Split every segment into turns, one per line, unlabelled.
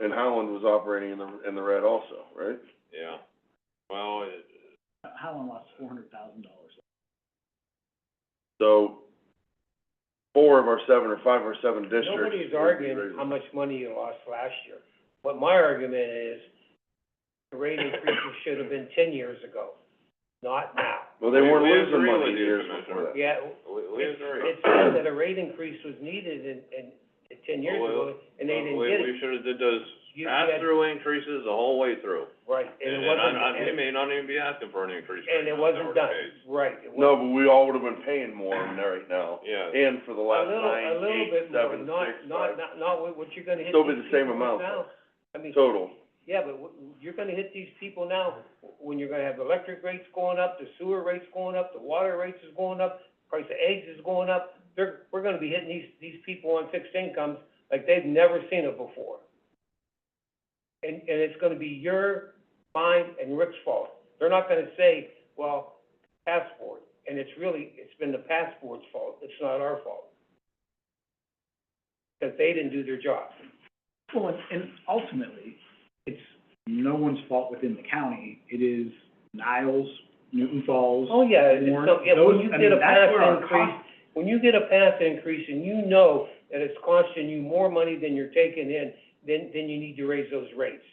And Holland was operating in the, in the red also, right?
yeah. Well, it,
Howland lost four hundred thousand dollars.
So, four of our seven or five or seven districts.
Nobody's
would be
arguing
raising-
how much money you lost last year. What my argument is, the rate increases should have been ten years ago, not now.
Well, they
We-
weren't
we
losing
agree
money
with you,
years
Commissioner.
before that.
Yeah,
we, we
it's,
agree.
it's said that a rate increase was needed in, in, ten years ago, and they didn't
We-
get it.
We should've did those
You had-
pass-through increases the whole way through.
Right, and
And,
it
and
wasn't,
I, I, we
and,
may not even be asking for an increase right
and it
now if that
wasn't
were the
done,
case.
right. it
No, but we all would've been paying more than that right now,
Yeah,
and for the
A
last
little, a
nine,
little
eight,
bit more,
seven,
not,
six,
not,
five,
not, not what- what you're gonna hit
Still be
these
the same
people
amount,
with now.
though.
I mean,
total.
yeah, but w- you're gonna hit these people now, when you're gonna have electric rates going up, the sewer rates going up, the water rates is going up, price of eggs is going up. They're, we're gonna be hitting these, these people on fixed incomes like they've never seen it before. And, and it's gonna be your, mine, and Rick's fault. They're not gonna say, well, passport, and it's really, it's been the passport's fault, it's not our fault. Because they didn't do their job.
Well, and- and ultimately, it's no one's fault within the county. It is Niles, Newton Falls,
Oh, yeah, it's,
Warren,
so, yeah, when
those-
you
I
get
mean,
a
that's
pass
where our
increase,
cost-
when you get a pass increase and you know that it's costing you more money than you're taking in, then, then you need to raise those rates.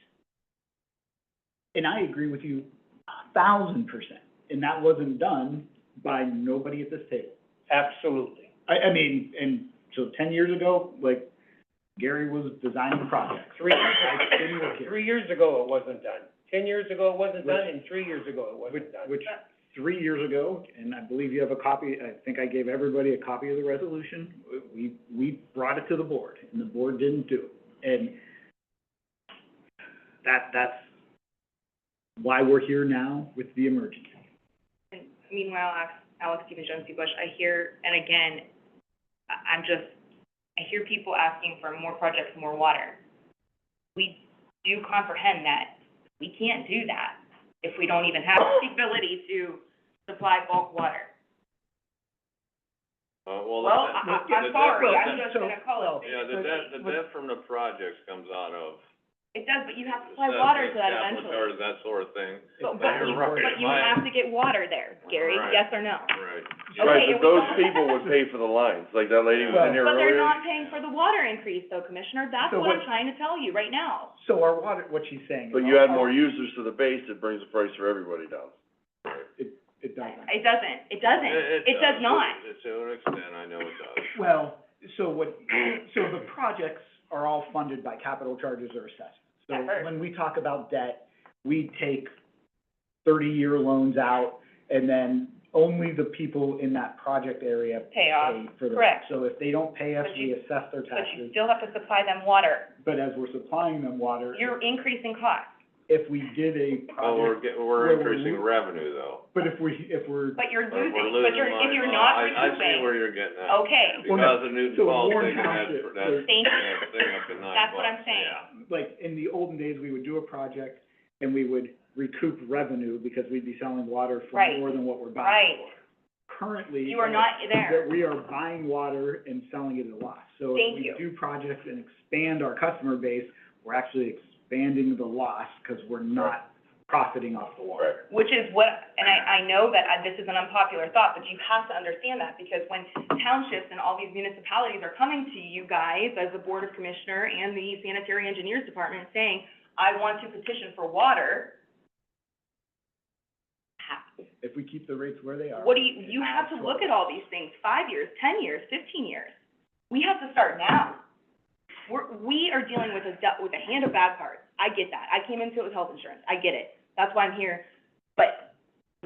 And I agree with you a thousand percent. And that wasn't done by nobody at this table.
Absolutely.
I, I mean, and so ten years ago, like, Gary was designing projects.
Three,
I didn't work here.
three years ago, it wasn't done. Ten years ago, it wasn't done, and three years ago, it
Which,
wasn't done.
which, three years ago, and I believe you have a copy, I think I gave everybody a copy of the resolution, we, we brought it to the board, and the board didn't do it. And that, that's why we're here now with the emergency.
And meanwhile, Alex, Alex Stephen Jones P. Bush, I hear, and again, I, I'm just, I hear people asking for more projects, more water. We do comprehend that. We can't do that if we don't even have the ability to supply bulk water.
uh, well, the,
Well, I,
debt- the
I, I'm
debt-
sorry,
the
I'm
debt-
just gonna call it.
Yeah, the debt, the debt from the projects comes out of.
It does, but you have to supply
assessments,
water to that
capital
eventually.
charges, that sort of thing,
But,
but
but
you're
you,
right,
but you
my-
have to get water there, Gary,
Right.
yes or no?
right.
Okay,
Right,
it
but those
was-
people would pay for the lines, like that lady was in here
But they're
earlier.
not paying for the water increase though, Commissioner, that's
So
what I'm
what-
trying to tell you right now.
So our water, what she's saying is.
But you add more users to the base, it brings the price for everybody down.
It doesn't.
It doesn't, it doesn't, it does not.
It- To an extent, I know it does.
Well, so what, so the projects are all funded by capital charges or assessments. So
At first.
when we talk about debt, we take thirty-year loans out, and then only the people in that project area
Pay
pay
off,
for the.
correct.
So if they don't pay us,
But
we
you-
assess their
uh, But you
taxes,
still have to supply them water.
but as we're supplying them water,
You're increasing costs,
if we did a
Well, we're
project,
get,
where
we're
we-
increasing revenue though.
Oh.
but if we, if we're,
but you're
We're-
losing,
we're
but you're,
losing
if you're
money. Uh,
not
I-
Oh.
I see
recouping,
where you're getting at.
okay,
Well, no,
Because of Newton
so
Falls,
Warren
they can add,
Township,
that,
thank you.
that thing up to nine bucks, yeah.
That's what I'm saying.
like, in the olden days, we would do a project, and we would recoup revenue because we'd be selling water for
Right.
more than what we're buying.
Right.
currently. uh,
You are not
That
there.
we are buying water and selling it at a loss. So if
Thank
we
you.
do projects and expand our customer base, we're actually expanding the loss because we're not profiting off the water.
Which is what, and I, I know that I- this is an unpopular thought, but you have to understand that, because when townships and all these municipalities are coming to you guys as the Board of Commissioner and the Sanitary Engineers Department saying, I want to petition for water, ha-
If we keep the rates where they are.
What do you, you have to look at all these things, five years, ten years, fifteen years. We have to start now. We're, we are dealing with a, du- with a hand of bad cards. I get that. I came into it with health insurance. I get it. That's why I'm here. But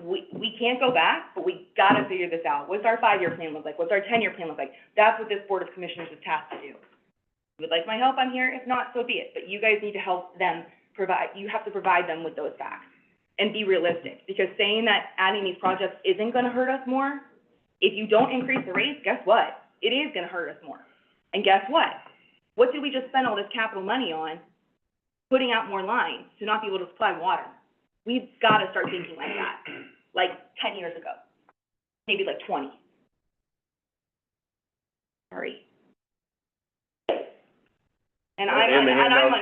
we, we can't go back, but we gotta figure this out. What's our five-year plan look like? What's our ten-year plan look like? That's what this Board of Commissioners is tasked to do. If you would like my help, I'm here. If not, so be it. But you guys need to help them provide, you have to provide them with those facts and be realistic, because saying that adding these projects isn't gonna hurt us more, if you don't increase the rates, guess what? It is gonna hurt us more. And guess what? What did we just spend all this capital money on, putting out more lines to not be able to supply water? We've gotta start thinking like that, like ten years ago, maybe like twenty. Sorry.
And
And I'm,
the
and I'm
handouts
on